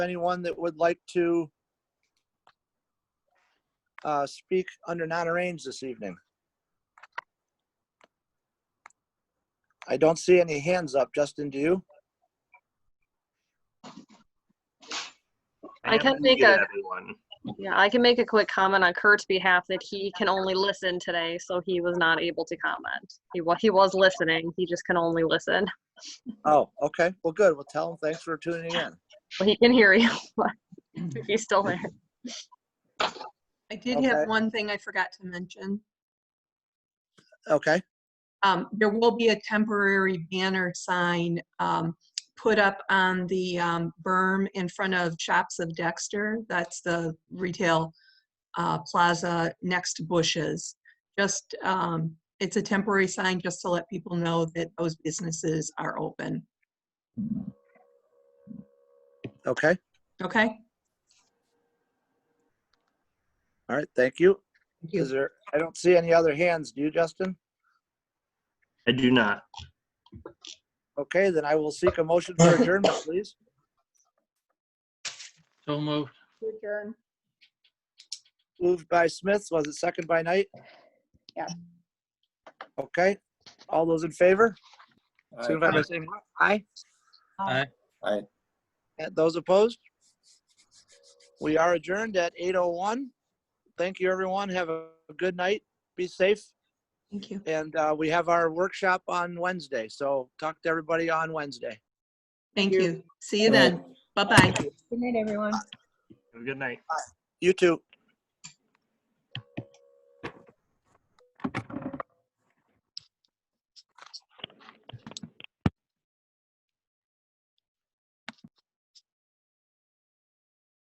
anyone that would like to uh, speak under non-arranged this evening? I don't see any hands up. Justin, do you? I can haven't make muted a- Everyone. Yeah, I can make a quick comment on Kurt's behalf that he can only listen today, so he was not able to comment. He was, he was listening, he just can only listen. Oh, okay. Well, good. Well, tell them thanks for tuning in. Well, he can hear you, but he's still there. I did Okay. have one thing I forgot to mention. Okay, Um, There will be a temporary banner sign um, put up on the um, berm in front of Shops of Dexter. That's the retail uh, plaza next to Bush's. Just, um, it's a temporary sign just to let people know that those businesses are open. okay. Okay? All right, thank you. Is there, I don't see any other hands. Do you, Justin? I do not. Okay, then I will seek a motion for adjournment, please. So moved. Moved by Smith, was it second by Knight? Yeah. Okay, all those in favor? Aye. Signify by saying aye. Aye. Aye. And those opposed? We are adjourned at 8:01. Thank you, everyone. Have a good night. Be safe. Thank you. And uh, we have our workshop on Wednesday, so talk to everybody on Wednesday. Thank you. you. See you then. Bye-bye. Good night, everyone. Have a good night. You too.